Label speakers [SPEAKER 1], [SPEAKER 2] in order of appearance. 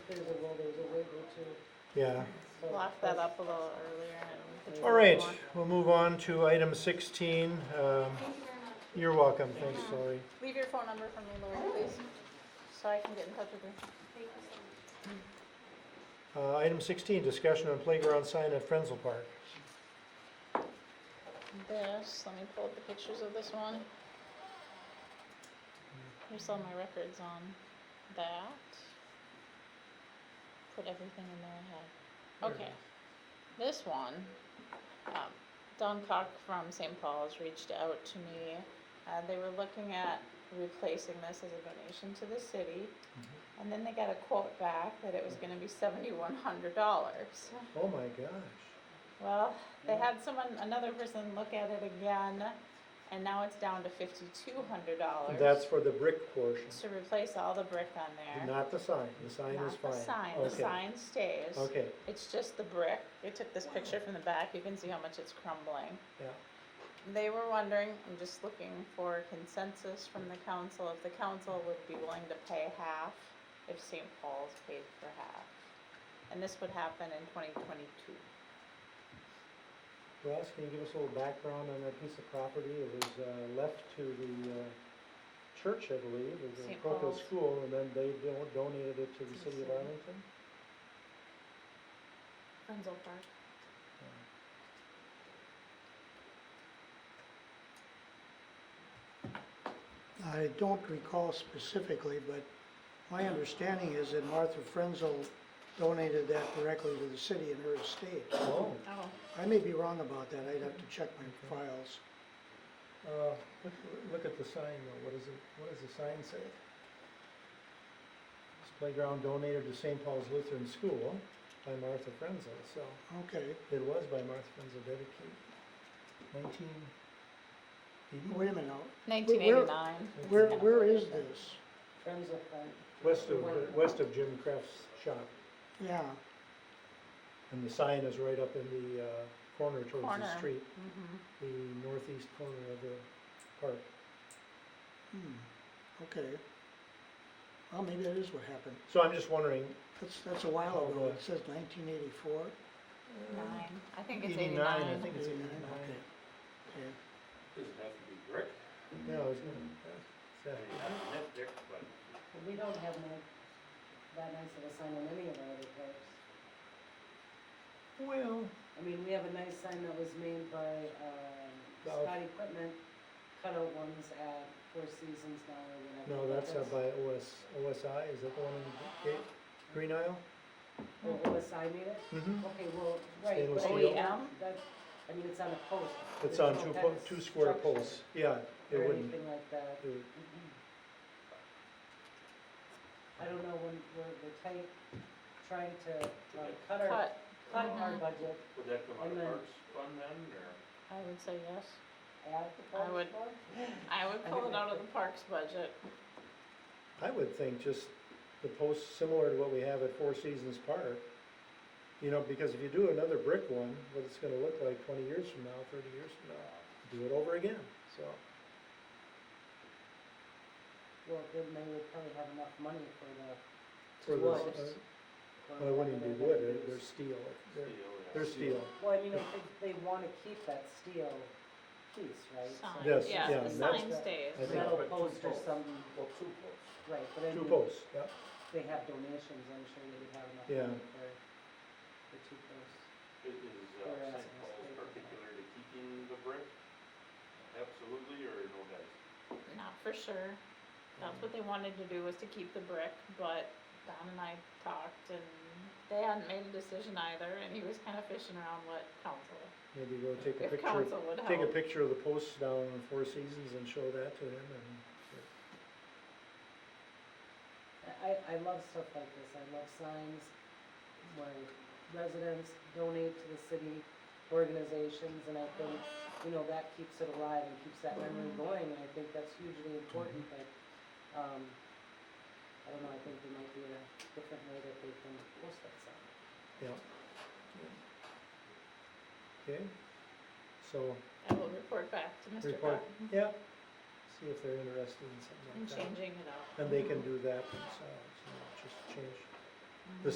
[SPEAKER 1] Yeah.
[SPEAKER 2] locked that up a little earlier and.
[SPEAKER 1] All right, we'll move on to item sixteen. Um, you're welcome. Thanks, Lori.
[SPEAKER 2] Leave your phone number for me, Lori, please, so I can get in touch with you.
[SPEAKER 1] Uh, item sixteen, discussion on playground sign at Frenzel Park.
[SPEAKER 2] This, let me pull up the pictures of this one. Here's all my records on that. Put everything in there I had.
[SPEAKER 1] There it
[SPEAKER 2] Okay. This one, um, Don Cock from St. Paul's reached out to me. Uh, they were looking at replacing this as a donation to the city. And then they got a quote back that it was gonna be seventy-one hundred dollars.
[SPEAKER 1] Oh my gosh.
[SPEAKER 2] Well, they had someone, another person look at it again, and now it's down to fifty-two hundred dollars.
[SPEAKER 1] That's for the brick portion,
[SPEAKER 2] To replace all the brick on there.
[SPEAKER 1] not the sign. The sign is
[SPEAKER 2] Not
[SPEAKER 1] fine.
[SPEAKER 2] the sign, the
[SPEAKER 1] Okay.
[SPEAKER 2] sign stays.
[SPEAKER 1] Okay,
[SPEAKER 2] It's just the brick. They took this picture from the back, you can see how much it's crumbling.
[SPEAKER 1] yeah.
[SPEAKER 2] They were wondering, I'm just looking for consensus from the council, if the council would be willing to pay half, if St. Paul's paid for half. And this would happen in twenty twenty-two.
[SPEAKER 1] Ross, can you give us a little background on that piece of property? It was uh, left to the uh, church, I believe, it was a
[SPEAKER 2] St.
[SPEAKER 1] parochial
[SPEAKER 2] Paul's.
[SPEAKER 1] school, and then they don- donated it to the city of
[SPEAKER 2] city.
[SPEAKER 1] Arlington?
[SPEAKER 2] Frienzel Park.
[SPEAKER 3] I don't recall specifically, but my understanding is that Martha Frenzel donated that directly to the city and her estate.
[SPEAKER 1] Oh,
[SPEAKER 2] Oh.
[SPEAKER 3] I may be wrong about that, I'd have to check my files.
[SPEAKER 1] uh, look, look at the sign though, what is it, what does the sign say? This playground donated to St. Paul's Lutheran School by Martha Frenzel, so
[SPEAKER 3] Okay,
[SPEAKER 1] it was by Martha Frenzel dedicated nineteen eighty?
[SPEAKER 3] wait a minute now,
[SPEAKER 2] Nineteen eighty-nine.
[SPEAKER 3] where, where is this?
[SPEAKER 4] Friends of friends.
[SPEAKER 1] West of, west of Jim Kraft's shop.
[SPEAKER 3] Yeah,
[SPEAKER 1] And the sign is right up in the uh, corner towards
[SPEAKER 2] Corner.
[SPEAKER 1] the street,
[SPEAKER 2] Mm-hmm.
[SPEAKER 1] the northeast corner of the park.
[SPEAKER 3] hmm, okay. Well, maybe that is what happened.
[SPEAKER 1] So I'm just wondering,
[SPEAKER 3] That's, that's a while ago, it says nineteen eighty-four.
[SPEAKER 2] Nine, I think it's
[SPEAKER 1] 89,
[SPEAKER 2] eighty-nine.
[SPEAKER 1] I think it's 89.
[SPEAKER 3] Okay, okay.
[SPEAKER 5] Does it have to be brick?
[SPEAKER 1] No, it's not.
[SPEAKER 5] I mean, I don't live there, but
[SPEAKER 4] Well, We don't have no, that nice of a sign on any of our other parks.
[SPEAKER 1] Well,
[SPEAKER 4] I mean, we have a nice sign that was made by, um,
[SPEAKER 1] The-
[SPEAKER 4] Scott Equipment, cutout ones at Four Seasons now or whatever.
[SPEAKER 1] no,
[SPEAKER 4] but
[SPEAKER 1] that's up by OS, OSI, is that the one in Ga- Green Isle?
[SPEAKER 4] Oh, OSI made it?
[SPEAKER 1] Mm-hmm.
[SPEAKER 4] Okay, well, right,
[SPEAKER 1] Stainless
[SPEAKER 4] but I
[SPEAKER 2] steel.
[SPEAKER 4] mean, that, that- I mean, it's on a post.
[SPEAKER 1] It's
[SPEAKER 4] There's
[SPEAKER 1] on
[SPEAKER 4] no
[SPEAKER 1] two,
[SPEAKER 4] kind
[SPEAKER 1] po-
[SPEAKER 4] of
[SPEAKER 1] two square
[SPEAKER 4] structure
[SPEAKER 1] poles, yeah, it
[SPEAKER 4] Or
[SPEAKER 1] wouldn't.
[SPEAKER 4] anything like that.
[SPEAKER 1] it would-
[SPEAKER 4] Mm-mm. I don't know when, we're, we're tight, trying to, uh, cut our,
[SPEAKER 2] Cut,
[SPEAKER 4] cut our
[SPEAKER 2] Mhm.
[SPEAKER 4] budget
[SPEAKER 5] would that come out
[SPEAKER 4] And
[SPEAKER 5] of
[SPEAKER 4] then-
[SPEAKER 5] parks fund then, or?
[SPEAKER 2] I would say yes.
[SPEAKER 4] at the
[SPEAKER 2] I
[SPEAKER 4] park.
[SPEAKER 2] would-
[SPEAKER 4] floor.
[SPEAKER 2] I would
[SPEAKER 4] I
[SPEAKER 2] pull
[SPEAKER 4] think
[SPEAKER 2] it out of
[SPEAKER 4] that's
[SPEAKER 2] the parks budget.
[SPEAKER 1] I would think just the posts similar to what we have at Four Seasons Park. You know, because if you do another brick one, what it's gonna look like twenty years from now, thirty years from now, do it over again, so.
[SPEAKER 4] Well, then they would probably have enough money for the.
[SPEAKER 1] For the,
[SPEAKER 4] Wood.
[SPEAKER 1] uh, well, it wouldn't even be wood, they're, they're steel, they're, they're steel.
[SPEAKER 4] Well, I mean, if they, they wanna keep that steel piece, right? So
[SPEAKER 2] Sign,
[SPEAKER 1] Yes,
[SPEAKER 2] yeah,
[SPEAKER 1] yeah,
[SPEAKER 2] the
[SPEAKER 1] and
[SPEAKER 4] that's-
[SPEAKER 2] sign stays.
[SPEAKER 1] I think-
[SPEAKER 4] Metal
[SPEAKER 5] But two
[SPEAKER 4] post or
[SPEAKER 5] posts.
[SPEAKER 4] something,
[SPEAKER 5] Well, two posts.
[SPEAKER 4] right, but I
[SPEAKER 1] Two
[SPEAKER 4] mean,
[SPEAKER 1] posts, yeah,
[SPEAKER 4] they have donations, I'm sure they would have enough
[SPEAKER 1] Yeah.
[SPEAKER 4] money for, for two posts.
[SPEAKER 5] Is, is
[SPEAKER 4] Or
[SPEAKER 5] uh, St.
[SPEAKER 4] else it's
[SPEAKER 5] Paul's
[SPEAKER 4] big.
[SPEAKER 5] particular to keeping the brick? Absolutely, or no guys?
[SPEAKER 2] Not for sure. That's what they wanted to do was to keep the brick, but Don and I talked and they hadn't made a decision either and he was kind of fishing around what council,
[SPEAKER 1] maybe go take a
[SPEAKER 2] if
[SPEAKER 1] picture,
[SPEAKER 2] council would help.
[SPEAKER 1] take a picture of the posts down in Four Seasons and show that to him and.
[SPEAKER 4] I, I love stuff like this, I love signs where residents donate to the city organizations, and I think, you know, that keeps it alive and keeps that memory going, and I think that's hugely important, but, um, I don't know, I think there might be a different way that they can post that sign.
[SPEAKER 1] Okay, so,
[SPEAKER 2] I will report back to Mr.
[SPEAKER 1] Report.
[SPEAKER 2] Cotton
[SPEAKER 1] yeah, see if they're interested in something
[SPEAKER 2] in
[SPEAKER 1] like that.
[SPEAKER 2] changing it up.
[SPEAKER 1] And they can do that themselves, you know, just change